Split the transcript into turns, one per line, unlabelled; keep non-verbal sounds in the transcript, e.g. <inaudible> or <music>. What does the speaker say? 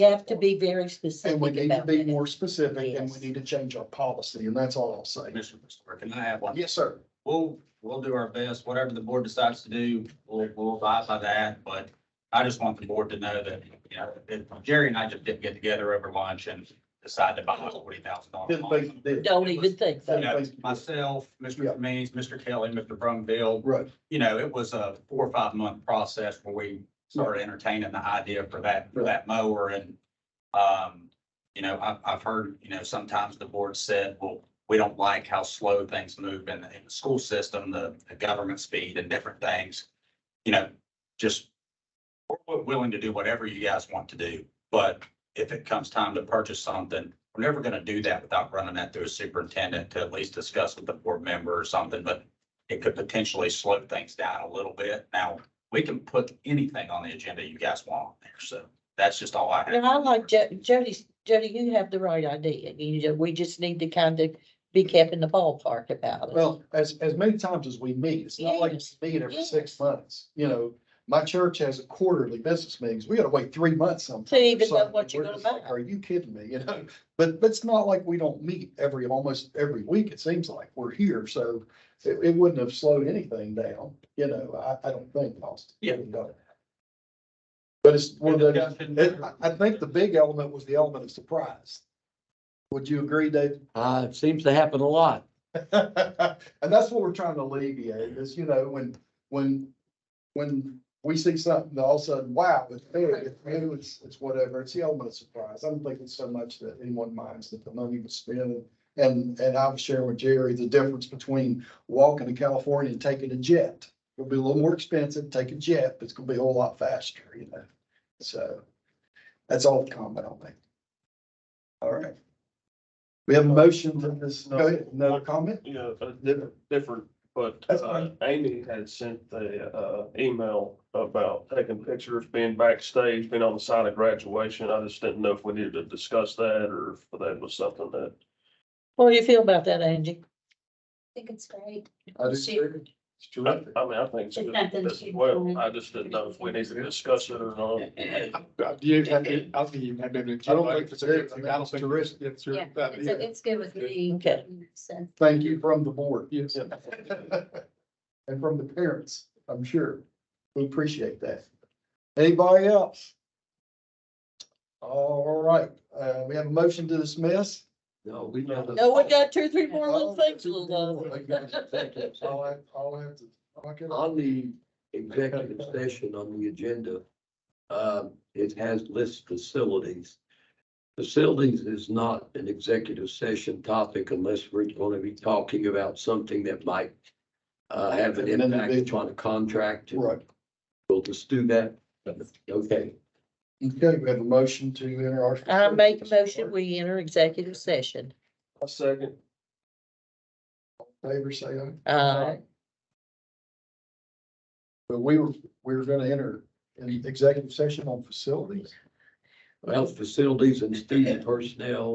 have to be very
And we
specific
need to
about
be
that.
more specific and we
Yes.
need to change our policy and that's all I'll say.
Mr. Christopher, can I have one?
Yes, sir.
We'll, we'll do our best, whatever the board decides to do, we'll, we'll abide by that, but I just want the board to know that, you know, that Jerry and I just didn't get together over lunch and decide to buy forty thousand
Didn't think
dollars.
you did.
Don't even think
You
about it.
know, myself,
Yeah.
Mr. Means, Mr. Kelly, Mr. Brumville,
Right.
you know, it was a four or five month process where we started entertaining the idea for that, for that mower and, um, you know, I've, I've heard, you know, sometimes the board said, well, we don't like how slow things move in, the- in the school system, the, the government speed and different things. You know, just we're- we're willing to do whatever you guys want to do, but if it comes time to purchase something, we're never gonna do that without running that through a superintendent to at least discuss with the board member or something, but it could potentially slow things down a little bit. Now, we can put anything on the agenda you guys want on there, so that's just all I have.
And I like Jo- Jody's, Jody, you have the right idea. You, ju- we just need to kind of be kept in the ballpark about it.
Well, as, as many times as we meet, it's not like
Yes.
we meet every
Yes.
six months, you know. My church has quarterly business meetings. We gotta wait three months sometimes.
To even
or
know
something.
what you're
We're
gonna
just like,
buy.
Are you kidding me? <laughs> You know, but, but it's not like we don't meet every, almost every week, it seems like. We're here, so it, it wouldn't have slowed anything down, you know, I, I don't think, Austin.
Yeah.
No. But it's one of those.
Discussion.
It, I, I think the big element was the element of surprise. Would you agree, Dave?
Uh, it seems to happen a lot.
<laughs> And that's what we're trying to alleviate is, you know, when, when, when we see something, all of a sudden, wow, it's there, it's new, it's, it's whatever, it's the element of surprise. I don't think it's so much that anyone minds that the money was spent. And, and I was sharing with Jerry the difference between walking to California and taking a jet. It'll be a little more expensive, take a jet, but it's gonna be a whole lot faster, you know? So that's all the comment on that. All right. We have a motion for this, go ahead, another comment?
you know, uh, di- different, but
That's
uh,
fine.
Amy had sent the uh email about taking pictures, being backstage, being on the side of graduation. I just didn't know if we needed to discuss that or if that was something that.
What do you feel about that, Angie?
think it's great.
I do
She-
too. It's
I
terrific.
I mean, I think it's
It's
good
nothing
as
to-
well. I just didn't know if we needed to discuss it or not.
<laughs>
Uh, You have to, I think you have to, I don't think it's a good thing. I don't think it's, it's,
Yeah, it's,
yeah.
it's good with me.
Okay.
So,
Thank you from the board.
Yes.
<laughs> And from the parents, I'm sure. We appreciate that. Anybody else? All right, uh, we have a motion to dismiss.
No, we know. the-
No, we got two, three more little things to love.
Executive
I'll
session.
have, I'll have to. I'll get on.
On the executive session on the agenda, um, it has lists facilities. Facilities is not an executive session topic unless we're going to be talking about something that might uh, have an
An
impact
individual.
on a contract.
Right,
We'll just do that. Okay.
okay, we have a motion to enter our.
I make a motion, we enter executive session.
A second.
Favor say aye.
Uh,
But we were, we were gonna enter an executive session on facilities.
Well, facilities and student personnel